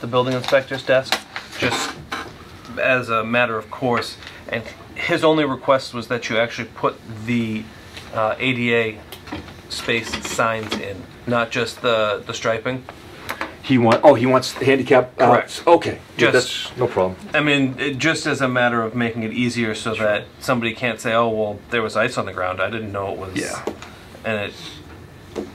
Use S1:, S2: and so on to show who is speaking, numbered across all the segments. S1: the building inspector's desk, just as a matter of course. And his only request was that you actually put the uh, ADA space signs in, not just the, the striping.
S2: He want, oh, he wants the handicap. uh,
S1: Correct.
S2: Okay, Yeah,
S1: Just-
S2: that's, no problem.
S1: I mean, it, just as a matter of making it easier so that somebody can't say, oh, well, there was ice on the ground. I didn't know it was.
S2: Yeah.
S1: And it,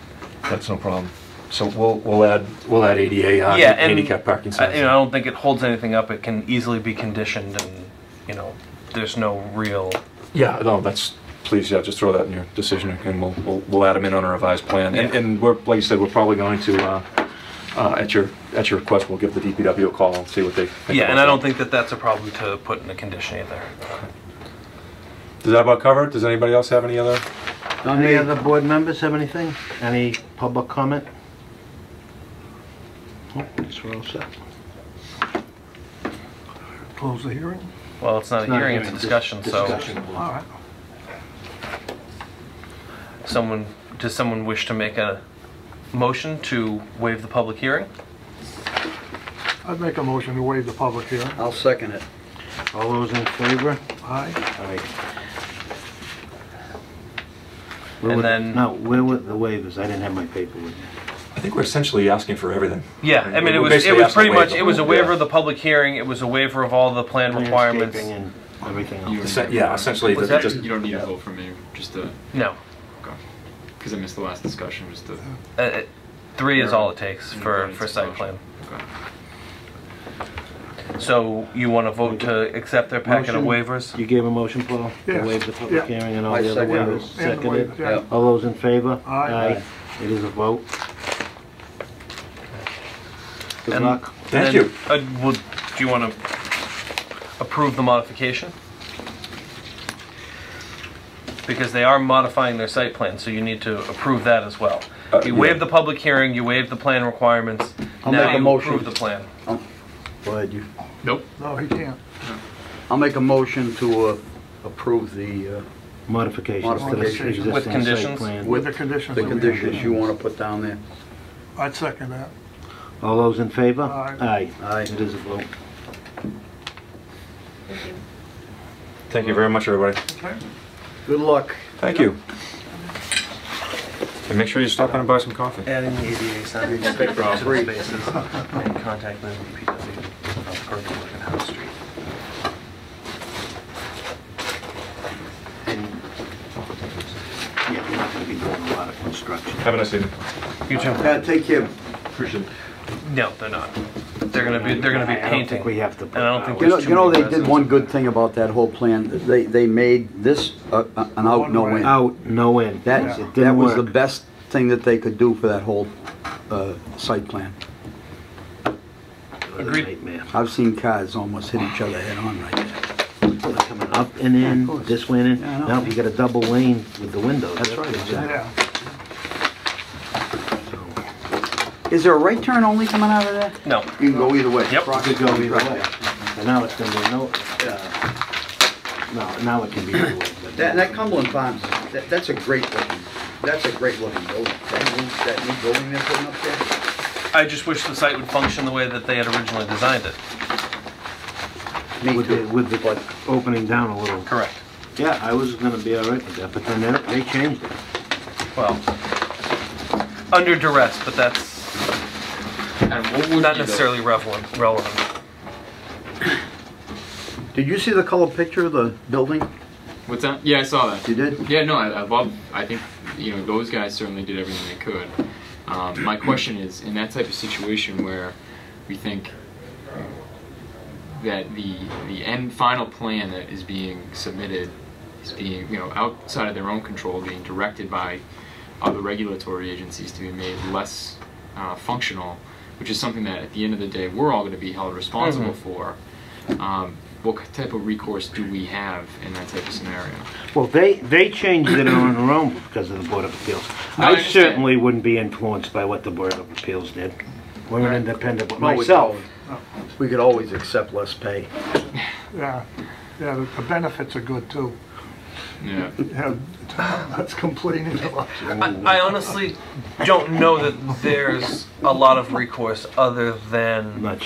S2: That's no problem. So we'll, we'll add, we'll add ADA on
S1: yeah, and
S2: handicap
S1: I, you
S2: parking
S1: know,
S2: signs.
S1: I don't think it holds anything up. It can easily be conditioned, and you know, there's no real.
S2: Yeah, no, that's, please, yeah, just throw that in your decision and we'll, we'll, we'll add them in on a revised plan. And,
S1: Yeah.
S2: and we're, like you said, we're probably going to, uh, uh, at your, at your request, we'll give the DPW a call and see what they think.
S1: Yeah, and
S2: about
S1: I don't
S2: that.
S1: think that that's a problem to put in a condition either.
S2: Does that about cover it? Does anybody else have any other?
S3: Any other board members have anything? Any public comment? Oh, Guess we're all set.
S4: Close the hearing?
S1: Well, it's not a hearing; it's a discussion. So,
S4: All right.
S1: someone does someone wish to make a motion to waive the public hearing?
S4: I'd make a motion to waive the public hearing.
S5: I'll second it.
S3: All those in favor?
S4: Aye.
S3: Where
S1: And
S3: were the-
S1: then-
S3: No, where were the waivers? I didn't have my paper with me.
S2: I think we're essentially asking for everything.
S1: Yeah, I mean, it
S2: We're
S1: was it
S2: basically
S1: was
S2: asking
S1: pretty
S2: to waive
S1: much
S2: the
S1: it was a
S2: whole-
S1: waiver
S2: yeah.
S1: of the public hearing. It was a waiver of all the plan requirements.
S3: Landscaping and everything else.
S2: Essen- Yeah, essentially,
S1: What's
S2: that-
S1: that?
S2: just-
S6: You don't need a vote from me, just to,
S1: No,
S6: because I missed the last discussion, just to.
S1: uh, uh, three is all it takes for for site plan. So you want to vote to accept their packet of
S3: Motion.
S1: waivers?
S3: You gave a motion, Paul? To
S4: Yes,
S3: waive the
S4: yeah.
S3: public hearing and all
S5: I
S3: the other
S5: second it.
S3: waivers?
S4: And the
S3: Seconded?
S4: waiver, yeah.
S5: Yep.
S3: All those in favor?
S4: Aye.
S3: It is a vote. Good
S1: And-
S3: luck.
S2: Thank
S1: Then,
S2: you.
S1: Uh, well, do you want to approve the modification? Because they are modifying their site plan, so you need to approve that as well.
S2: Uh,
S1: You
S2: yeah.
S1: waive the public hearing, you waive the plan requirements,
S5: I'll
S1: now
S5: make a
S1: you
S5: motion.
S1: approve the plan.
S3: Go ahead, you.
S6: Nope.
S4: No, he can't.
S5: I'll make a motion to uh, approve the, uh,
S3: Modifications to the
S4: Modifications.
S3: existing
S4: With
S3: site
S1: conditions?
S3: plan.
S4: With
S5: with
S4: the conditions.
S5: the
S4: that we have.
S5: conditions you want to put down there.
S4: I'd second that.
S3: All those in favor?
S4: Aye.
S3: Aye.
S5: Aye.
S3: It is a vote.
S2: Thank you very much, everybody.
S4: Okay.
S5: Good luck.
S2: Thank you. And make sure you stop in and buy some coffee.
S1: Adding the ADA sign
S5: to the Three.
S1: spaces and contact them with PW about parking on House Street.
S3: And, yeah, we're not gonna be doing a lot of construction.
S2: Have a nice evening.
S1: You too.
S5: Yeah, take care.
S2: Appreciate it.
S1: No, they're not. They're gonna be, they're gonna be
S3: I don't think we
S1: painting.
S3: have to. put
S1: And I don't think
S5: You know,
S1: There's too
S5: you know,
S1: many
S5: they did one good thing about that whole plan. They, they made this uh, uh, an out, no
S4: One way.
S5: in.
S3: Out, no in.
S5: That,
S3: It
S5: that
S3: didn't
S5: was the
S3: work.
S5: best thing that they could do for that whole uh, site plan.
S1: Agreed.
S3: Nightmare.
S5: I've seen cars almost hit each other head on right there.
S3: Coming up and
S5: of
S3: in,
S5: course.
S3: this went in,
S5: Yeah, I know.
S3: now you got a double lane with the windows.
S5: That's right, exactly.
S4: Yeah.
S5: Is there a right turn only coming out of there?
S1: No,
S5: You can go either way.
S1: Yep.
S5: Cross-
S3: Could go either
S5: right
S3: way.
S5: there.
S3: And now it's gonna be no, uh, no, now it can be either way. but-
S5: That, that Cumberland Farms, that, that's a great looking, that's a great looking building. That new, that new building they're putting up there?
S1: I just wish the site would function the way that they had originally designed it.
S5: Me
S3: With the,
S5: too.
S3: with the opening down a little.
S1: Correct.
S3: Yeah, I was gonna be all right with that, but then they, they changed it.
S1: Well, under duress, but that's
S6: And what would
S1: not
S6: be the-
S1: necessarily relevant. relevant.
S5: Did you see the color picture of the building?
S6: What's that? Yeah, I saw that.
S5: You did?
S6: Yeah, no, I, I love. I think you know those guys certainly did everything they could. Um, my question is, in that type of situation where we think that the the end final plan that is being submitted is being you know outside of their own control, being directed by other regulatory agencies to be made less uh, functional, which is something that at the end of the day we're all going to be held responsible for. Um, what type of recourse do we have in that type of scenario?
S3: Well, they, they changed it on their own because of the Board of Appeals.
S6: No, I
S3: I
S6: understand.
S3: certainly wouldn't be influenced by what the Board of Appeals did. We're an independent, but
S5: No, we
S3: myself,
S5: We could always accept less pay.
S4: Yeah, yeah, the- the benefits are good too.
S6: Yeah.
S4: Yeah, that's complaining about it.
S1: I, I honestly don't know that there's a lot of recourse other than.
S3: I'm not